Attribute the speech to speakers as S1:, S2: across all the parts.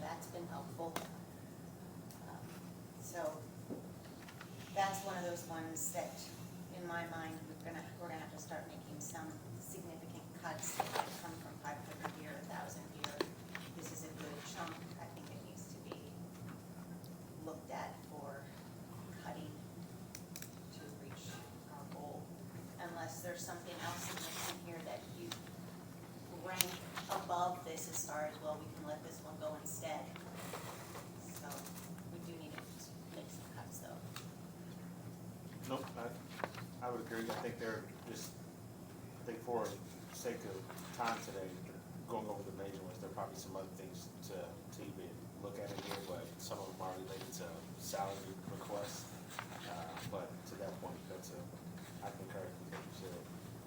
S1: that's been helpful. Um, So, that's one of those ones that, in my mind, we're gonna, we're gonna have to start making some significant cuts that come from five hundred here, a thousand here. This is a good chunk, I think it needs to be looked at for cutting to reach our goal. Unless there's something else in this in here that you rank above this as far as, well, we can let this one go instead. So we do need to make some cuts though.
S2: Nope, I, I would agree, I think they're just, I think for sake of time today, going over the major ones, there are probably some other things to, to even look at in here, but some of them are related to salary requests. Uh, but to that point, that's a, I concur with what you said.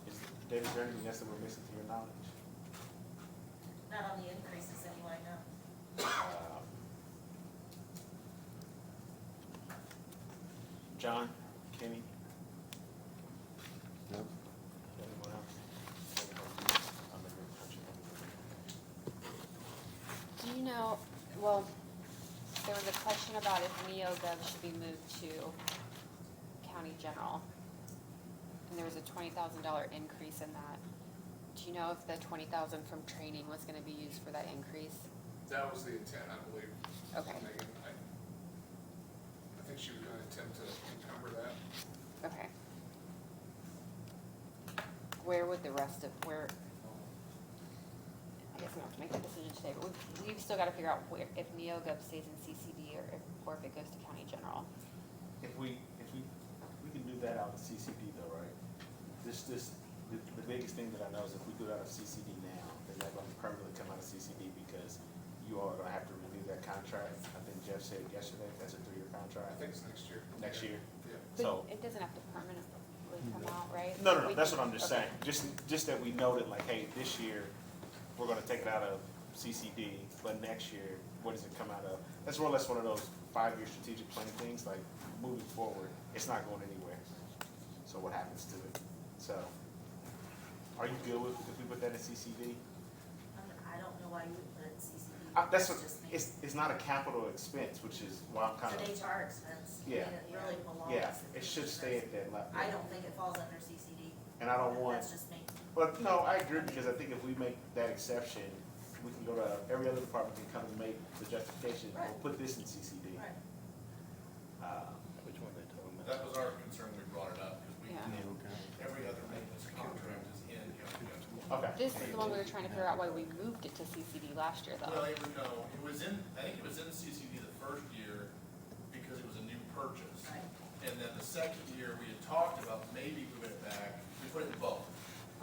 S2: Is, David, is there anything else that we're missing to your knowledge?
S1: Not on the increases that you want to know.
S2: Um, John, Kenny?
S3: No.
S2: Anyone else? I'm in good touch with
S4: Do you know, well, there was a question about if NeoGov should be moved to county general. And there was a twenty thousand dollar increase in that. Do you know if the twenty thousand from training was gonna be used for that increase?
S5: That was the intent, I believe,
S4: Okay,
S5: Megan. I, I think she was gonna attempt to encumber that.
S4: okay. Where would the rest of, where, I guess we don't have to make that decision today, but we've, we've still gotta figure out where, if NeoGov stays in CCD or if, or if it goes to county general.
S2: If we, if we, we can do that out of CCD though, right? This, this, the, the biggest thing that I know is if we do it out of CCD now, then that gonna permanently come out of CCD because you all are gonna have to renew that contract. I think Jeff said yesterday, that's a three-year
S5: I
S2: contract,
S5: think it's next year.
S2: next year.
S5: Yeah.
S2: So-
S4: But it doesn't have to permanently come out, right?
S2: No, no,
S4: We
S2: no, that's
S4: can-
S2: what I'm just
S4: okay.
S2: saying, just, just that we noted, like, hey, this year, we're gonna take it out of CCD, but next year, what does it come out of? That's more or less one of those five-year strategic planning things, like, moving forward, it's not going anywhere, so what happens to it? So, are you good with, if we put that in CCD?
S1: I don't know why you would put it in CCD.
S2: Uh, that's what,
S1: just me.
S2: it's, it's not a capital expense, which is why I'm kind of,
S1: It's an HR expense.
S2: Yeah.
S1: and It really belongs.
S2: yeah,
S1: in
S2: it
S1: the
S2: should stay at that level.
S1: I don't think it falls under CCD.
S2: And I don't want
S1: That's just me.
S2: Well, no, I agree, because I think if we make that exception, we can go to, every other department can come and make the justification, we'll put this in CCD.
S1: Right.
S2: Uh,
S3: Which one they talking
S6: That was our concern, we brought it up, because we,
S4: Yeah.
S3: Okay.
S6: every other maintenance contract is in, you know, you know.
S2: Okay,
S4: This is the one we were trying to figure out why we moved it to CCD last year,
S6: Well,
S4: though.
S6: it was, no, it was in, I think it was in CCD the first year, because it was a new purchase.
S1: Right.
S6: And then the second year, we had talked about maybe we went back, we put it in both.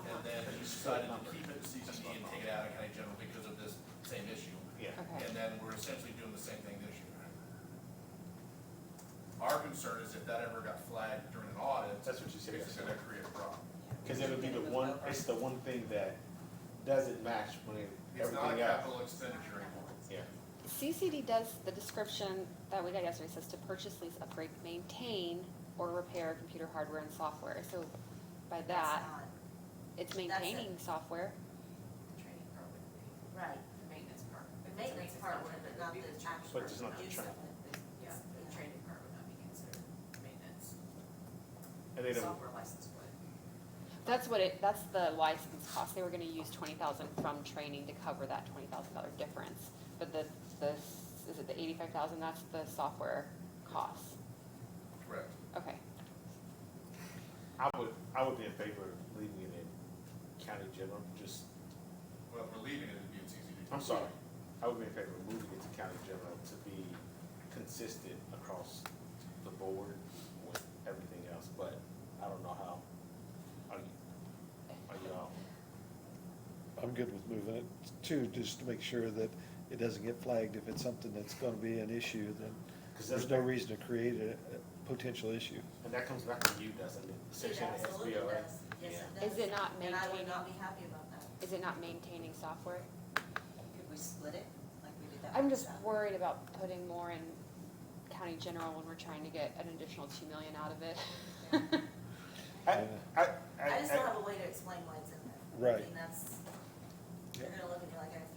S6: And then we decided to keep it in CCD and take it out of county general because of this same issue.
S2: yeah,
S4: Okay,
S6: And then we're essentially doing the same thing this year. Our concern is if that ever got flagged during an audit,
S2: that's what you said,
S6: it's gonna create a problem.
S2: because it would be the one, it's the one thing that doesn't match when it-
S6: It's not a
S2: everything else.
S6: capital expenditure anymore.
S2: Yeah,
S4: CCD does the description that we got yesterday, says to purchase, lease, upgrade, maintain, or repair computer hardware and software, so by that, it's
S1: it.
S4: maintaining software.
S7: training program,
S1: Right,
S7: the maintenance part.
S1: the maintenance part would, but not the actual
S2: But it's not the
S1: use of
S2: training.
S1: it.
S7: Yeah, the training part would not be considered maintenance.
S2: and they don't,
S7: Software license would.
S4: That's what it, that's the license cost, they were gonna use twenty thousand from training to cover that twenty thousand dollar difference. But the, the, is it the eighty-five thousand, that's the software cost,
S6: Correct.
S4: okay.
S2: I would, I would be in favor of leaving it in county general, just,
S6: Well, if we're leaving it, it'd be in CCD.
S2: I'm sorry, I would be in favor of moving it to county general to be consistent across the board with everything else, but I don't know how. Are you, are you all,
S3: I'm good with moving it too, just to make sure that it doesn't get flagged. If it's something that's gonna be an issue, then
S2: cause that's,
S3: there's no reason to create a, a potential issue.
S2: and that comes back to you, doesn't it?
S1: It
S2: Essentially, the
S1: absolutely
S2: SBO, right?
S1: does. Yes, it does.
S4: Is it not
S1: And I would
S4: maintaining,
S1: not be happy about that.
S4: is it not maintaining software?
S1: Could we split it like we did that?
S4: I'm
S1: with
S4: just
S1: salary?
S4: worried about putting more in county general when we're trying to get an additional two million out of it.
S2: I, I, I,
S1: I just don't
S2: I,
S1: have a way to explain why it's in there. I
S3: Right.
S1: mean, that's, you're gonna look at me like I